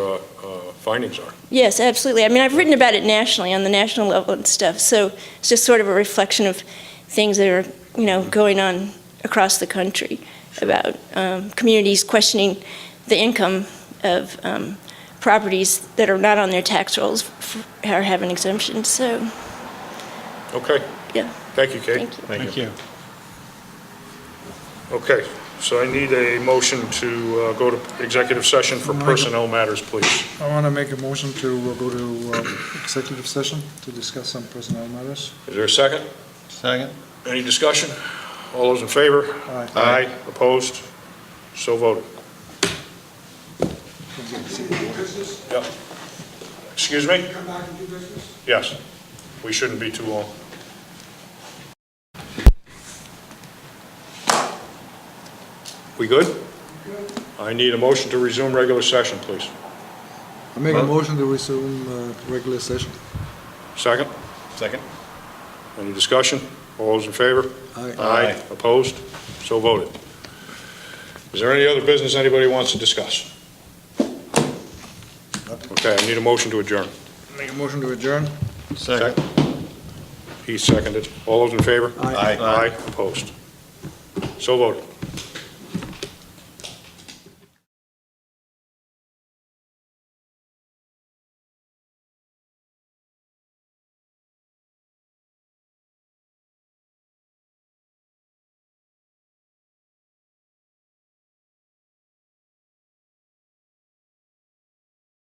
uh, findings are. Yes, absolutely. I mean, I've written about it nationally, on the national level and stuff, so it's just sort of a reflection of things that are, you know, going on across the country about um, communities questioning the income of um, properties that are not on their tax rolls f- or have an exemption, so, Okay, yeah, thank you, Kate. thank you. Thank you. Okay, so I need a motion to uh, go to executive session for personnel matters, please. I want to make a motion to uh, go to uh, executive session to discuss some personnel matters. Is there a second? Second? Any discussion? All those in favor? Aye. Aye, opposed? So voted. Yep. Excuse me? Come back and do business? Yes, we shouldn't be too long. We good? I need a motion to resume regular session, please. I make a motion to resume uh, regular session. Second? Second. Any discussion? All those in favor? Aye. Aye. Opposed? So voted. Is there any other business anybody wants to discuss? Okay, I need a motion to adjourn. Make a motion to adjourn. Second. He seconded. All those in favor? Aye. Aye. Aye. Opposed? So voted.